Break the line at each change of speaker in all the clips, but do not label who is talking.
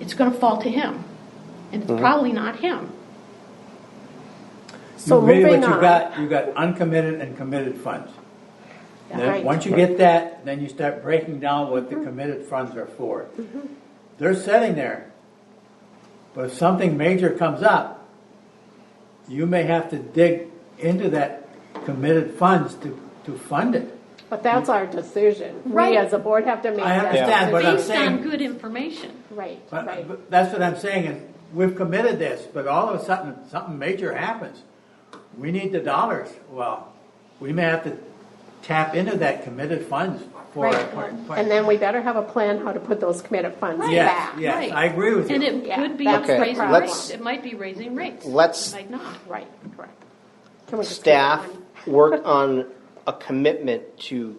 it's going to fall to him. And
Mm-hmm.
it's probably not him.
So
You made what
moving
you
on,
got, you got uncommitted and committed funds.
Right.
Then, once you get that, then you start breaking down what the
Mm-hmm.
committed funds are for. They're sitting there, but if something major comes up, you may have to dig into that committed funds to, to fund it.
but that's our decision.
Right.
We as a board have to make
I
that
understand, but
decision.
I'm
Based on
saying-
good information.
Right,
But,
right.
but that's what I'm saying, is we've committed this, but all of a sudden, something major happens. We need the dollars, well, we may have to tap into that committed funds for.
Right. And then we better have a plan how to put those committed funds
Right.
back.
Yes, yes,
Right.
I agree with
And
you.
it
Yeah,
could be
that's
the
raising
problem.
rates. It might be raising rates.
Let's-
It might not.
Right, correct. Can we just keep
staff
going?
work on a commitment to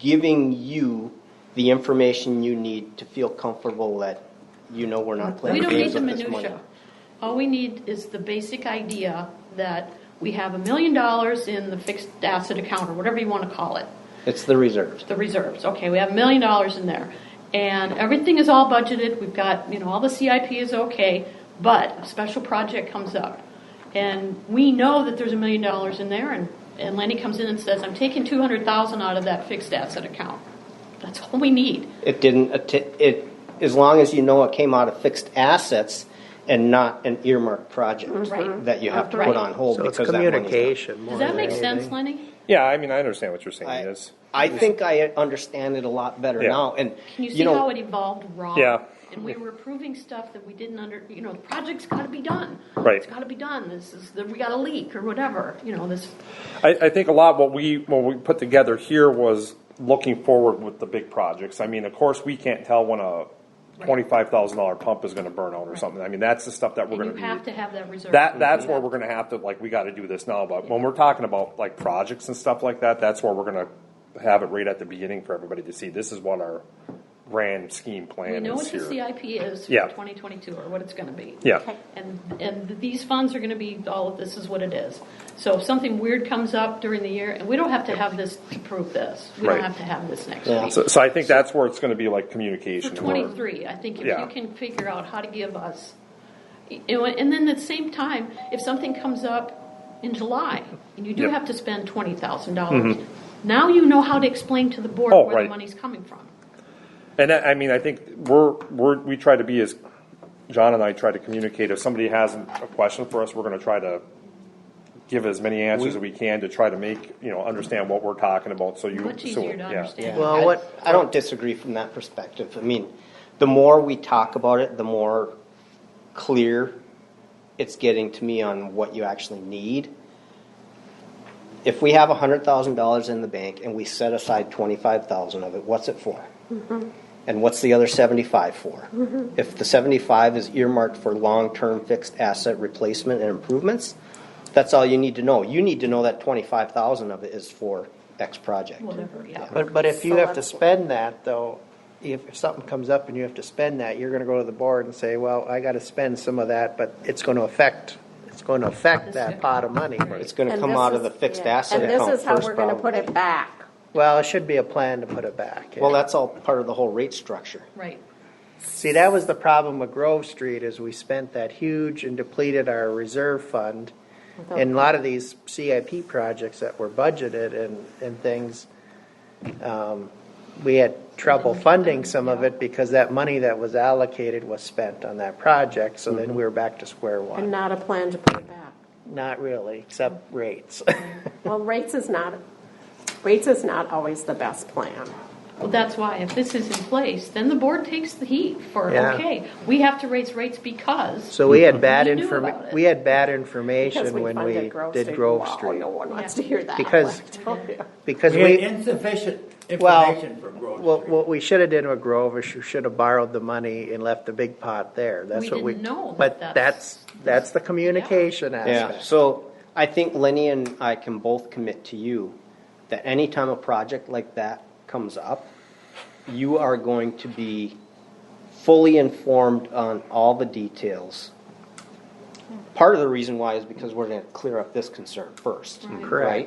giving you the information you need to feel comfortable that you know we're not
We
playing
don't need
games
the
with this money.
minutia. All we need is the basic idea that we have a million dollars in the fixed asset account, or whatever you want to call it,
It's the reserves.
the reserves. Okay, we have a million dollars in there. And everything is all budgeted, we've got, you know, all the CIP is okay, but a special project comes up. And we know that there's a million dollars in there, and, and Lenny comes in and says, I'm taking two hundred thousand out of that fixed asset account. That's all we need.
It didn't, att- it, as long as you know it came out of fixed assets and not an earmarked project
Right.
that you have to
Right.
put on hold
So it's
because that money's not.
communication. more
Does that
than
make sense,
anything.
Lenny?
Yeah, I mean, I understand what you're saying.
I,
Yes.
I think I understand it a lot better
Yeah.
now, and
Can you see
you know.
how it evolved wrong?
Yeah.
And we were approving stuff that we didn't under, you know, the project's got to be done.
Right.
It's got to be done. This is, we got a leak or whatever, you know, this,
I, I think a lot what we what we put together here was looking forward with the big projects. I mean, of course, we can't tell when a twenty five thousand dollar pump is going to burn out or something. I mean, that's the stuff that
and
we're going
you
to
have to have that reserve.
That that's where we're going to have to like we got to do this now. But when we're talking about like projects and stuff like that, that's where we're going to have it right at the beginning for everybody to see. This is what our grand scheme
We
plan
know
is
what the
here.
CIP is for
Yeah.
2022 or what it's going to be.
Yeah.
Okay.
And, and these funds are going to be, all of this is what it is. So if something weird comes up during the year, and we don't have to have this to prove this. We don't
Right.
have to have this next
Yeah.
week.
So, so I think that's where it's going to be like
For
communication. where-
twenty-three, I think if
Yeah.
you can figure out how to give us, you know, and then at the same time, if something comes up in July, and you do
Yep.
have to spend twenty thousand dollars, now you know how to explain to the board
Mm-hmm. Oh,
where the
right.
money's coming from.
And I, I mean, I think we're, we're, we try to be as, John and I try to communicate, if somebody has a question for us, we're gonna try to give as many answers as we can to try to make, you know, understand what we're talking about, so you.
Much
so-
easier to
yeah.
understand.
Well,
Well,
I,
what-
I don't disagree from that perspective. I mean, the more we talk about it, the more clear it's getting to me on what you actually need. If we have hundred thousand dollars in the bank and we set aside twenty-five thousand of it, what's it for? And what's the other seventy-five for? If the seventy-five is earmarked for long-term fixed asset replacement and improvements, that's all you need to know. You need to know that twenty-five thousand of it is for X project.
Whatever, yeah.
But, but if you
So
have to
that's-
spend that though, if if something comes up and you have to spend that, you're gonna go to the board and say, well, I gotta spend some of that, but it's gonna affect, it's gonna affect that pot of money.
It's gonna
And
come
this
out of
is-
the fixed
yeah.
asset
And this
account
is how
first
we're gonna put it
probably.
back.
Well, it should be a plan to put it back. yeah.
Well, that's all part of the whole rate structure.
Right,
See, that was the problem with Grove Street is we spent that huge and depleted our reserve fund. And a lot of these CIP projects that were budgeted and, and things, um, we had trouble funding some of it because that money that was allocated was spent on that project, so then we were back to square
And
one.
not a plan to put it back.
Not really, except rates.
Well, rates is not, rates is not always the best plan.
well, that's why, if this is in place, then the board takes the heat for,
Yeah.
okay, we have to raise rates because,
So we had bad
We knew about it.
informa, we had bad
Because
information
we
when
funded
we
Grove
did
Street.
Grove
Wow,
Street.
No one wants to hear that.
Because-
I tell you.
Because
We
we.
had insufficient
Well,
information from Grove
what,
Street.
what we should have did with Grove is you should have borrowed the money and left the big pot there. That's
We
what we.
didn't know
But
that
that's, that's the communication
Yeah,
aspect.
so I think Lenny and I can both commit to you that anytime a project like that comes up, you are going to be fully informed on all the details. Part of the reason why is because we're gonna clear up this concern first,
Mm-hmm.
right?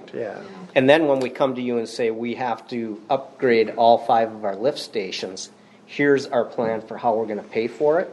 Correct, yeah.
And then when we come to you and say, we have to upgrade all five of our lift stations, here's our plan for how we're gonna pay for it,